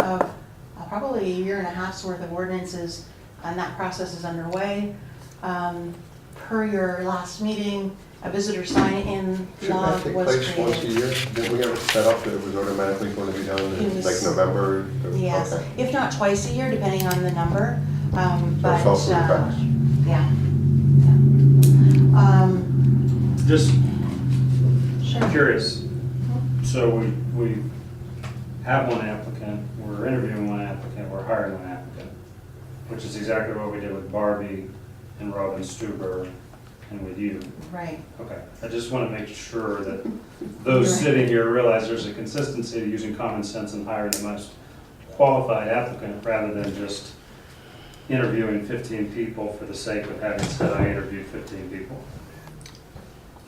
of uh, probably a year and a half's worth of ordinances, and that process is underway. Um, Per your last meeting, a visitor sign-in Shouldn't law that take was place once a created. year? Didn't we have it set up that it was automatically going to be done in Yes. like November? Yes, Okay. if not twice a year, depending on the number, um, So but, it's also in uh, fact. yeah. yeah. Um, Just Sure. curious, so we, we have one applicant, we're interviewing one applicant, we're hiring one applicant, which is exactly what we did with Barbie and Robin Stuber and with you. Right, Okay, I just want to make sure that those Right. sitting here realize there's a consistency to using common sense and hiring the most qualified applicant rather than just interviewing fifteen people for the sake of having said I interviewed fifteen people.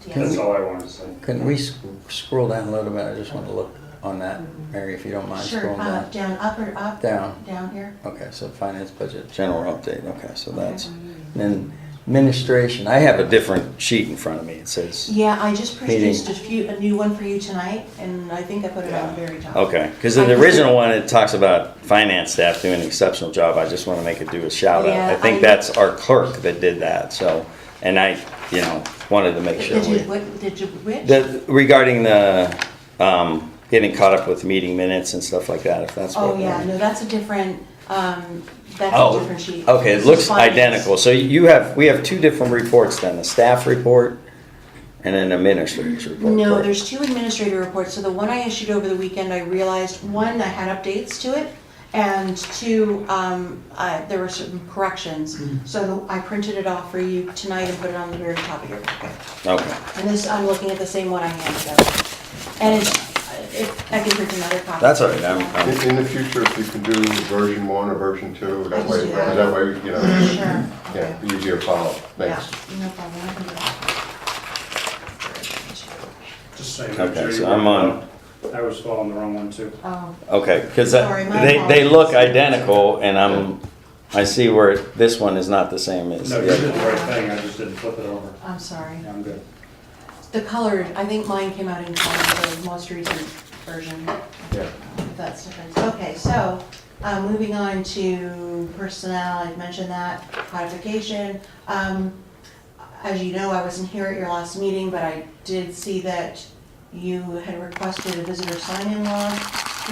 That's yes. all I wanted to say. Can we sc- scroll down a little bit? I just want to look on that, Mary, if you don't mind Sure, scrolling uh, down. down, up or up? Down. Down here? Okay, so finance budget, general update, okay, so that's, then administration, I have a different sheet in front of me, it says, Yeah, I just Meeting. produced a few, a new one for you tonight, and I think I put it on the very top. okay, because the original one, it talks about finance staff doing an exceptional job, I just want to make it do a shout out. Yeah, I I- think that's our clerk that did that, so, and I, you know, wanted to make sure Did we. you, what, did you, which? The, regarding the, um, getting caught up with meeting minutes and stuff like that, if that's what. Oh, yeah, we're- no, that's a different, um, that's a Oh, different sheet. okay, This it is looks finance. identical, so you have, we have two different reports then, the staff report and then the administrator's report. No, correct? there's two administrator reports, so the one I issued over the weekend, I realized, one, I had updates to it, and two, um, uh, there were certain corrections. So I printed it off for you tonight and put it on the very top of your packet. Okay, And this, I'm looking at the same one I handed out. And it's, if, I can print another copy. That's all right, I'm- I'm- In, in the future, if you can do version one or version two, that can way, do that. that way, you know, Sure. okay. yeah, easier follow. Thanks. Yeah, no problem, I can do that. Just saying. Okay, Judy, so I'm on- I was following the wrong one too. Oh, okay, because Sorry, they, my they apologies. look identical and I'm, I see where this one is not the same as No, you did the the other. right thing, I just didn't flip it over. I'm sorry. Yeah, I'm good. The colored, I think mine came out in color, the most recent version. Yeah. That's different. Okay, so, uh, moving on to personnel, I've mentioned that, codification. Um, As you know, I wasn't here at your last meeting, but I did see that you had requested a visitor sign-in law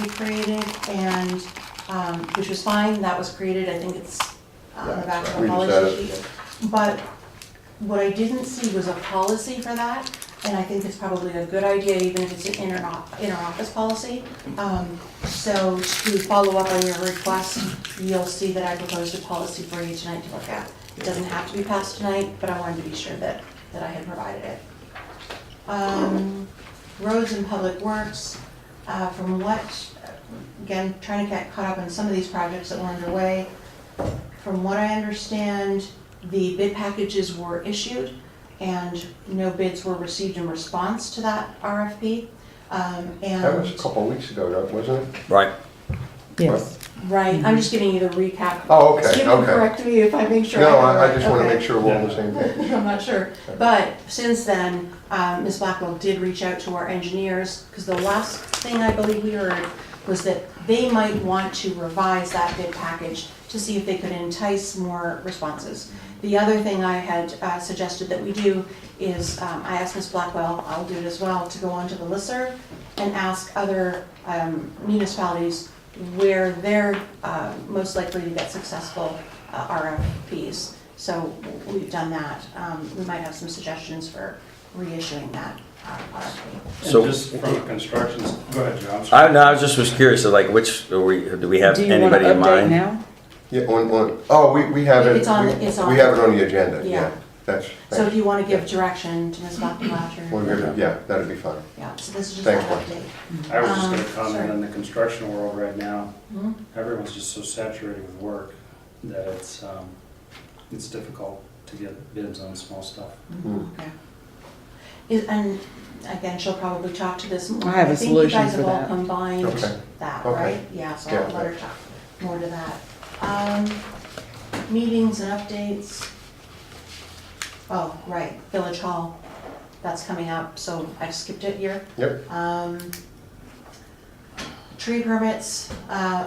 be created, and, um, which was fine, that was created, I think it's on the back of the We just policy added- sheet. But what I didn't see was a policy for that, and I think it's probably a good idea, even if it's an inter, inter-office policy. Um, so to follow up on your request, you'll see that I proposed a policy for you tonight to look at. It doesn't have to be passed tonight, but I wanted to be sure that, that I had provided it. Um, roads and public works, uh, from what, again, trying to get caught up on some of these projects that were underway. From what I understand, the bid packages were issued and no bids were received in response to that RFP. Um, That was a and, couple of weeks ago, though, wasn't it? Right, Yes. right, I'm just giving you the recap. Oh, Mm-hmm. okay, Jim will okay. correct me if I make sure. have it No, I, I right. just want to Okay. make sure we're on the same page. I'm not sure, but since then, um, Ms. Blackwell did reach out to our engineers, because the last thing I believe we heard was that they might want to revise that bid package to see if they could entice more responses. The other thing I had uh, suggested that we do is, um, I asked Ms. Blackwell, I'll do it as well, to go onto the listserv and ask other um, municipalities where they're uh, most likely to get successful uh, RFPs. So we've done that. Um, We might have some suggestions for reissuing that uh, RFP. And So- just from a construction, go ahead, Joe, I'm sorry. I, no, I was just was curious, like which, are we, do we have Do you want to anybody in update mind? now? Yeah, on, on, oh, we, we have it. It's on- we- it's on. We have it on the agenda, Yeah. yeah. That's, So if thanks. you want to give direction to Ms. Bachman We're or, good. yeah, that'd be fine. yeah, so this is just an Thanks, update. I was just um, gonna sorry. comment on the construction world right now. Mhm. Mm-hmm. Everyone's just so saturated with work that it's, um, it's difficult to get bids on small stuff. Mm. Okay. Is- And again, she'll probably talk to this more. I have a solution think you guys for that. have all Okay. combined that, Okay. right? Yeah, so I'll Yeah. let her talk more to that. Um, Meetings and updates. Oh, right, Village Hall, that's coming up, so I skipped it here. Yep. Um, Tree permits, uh,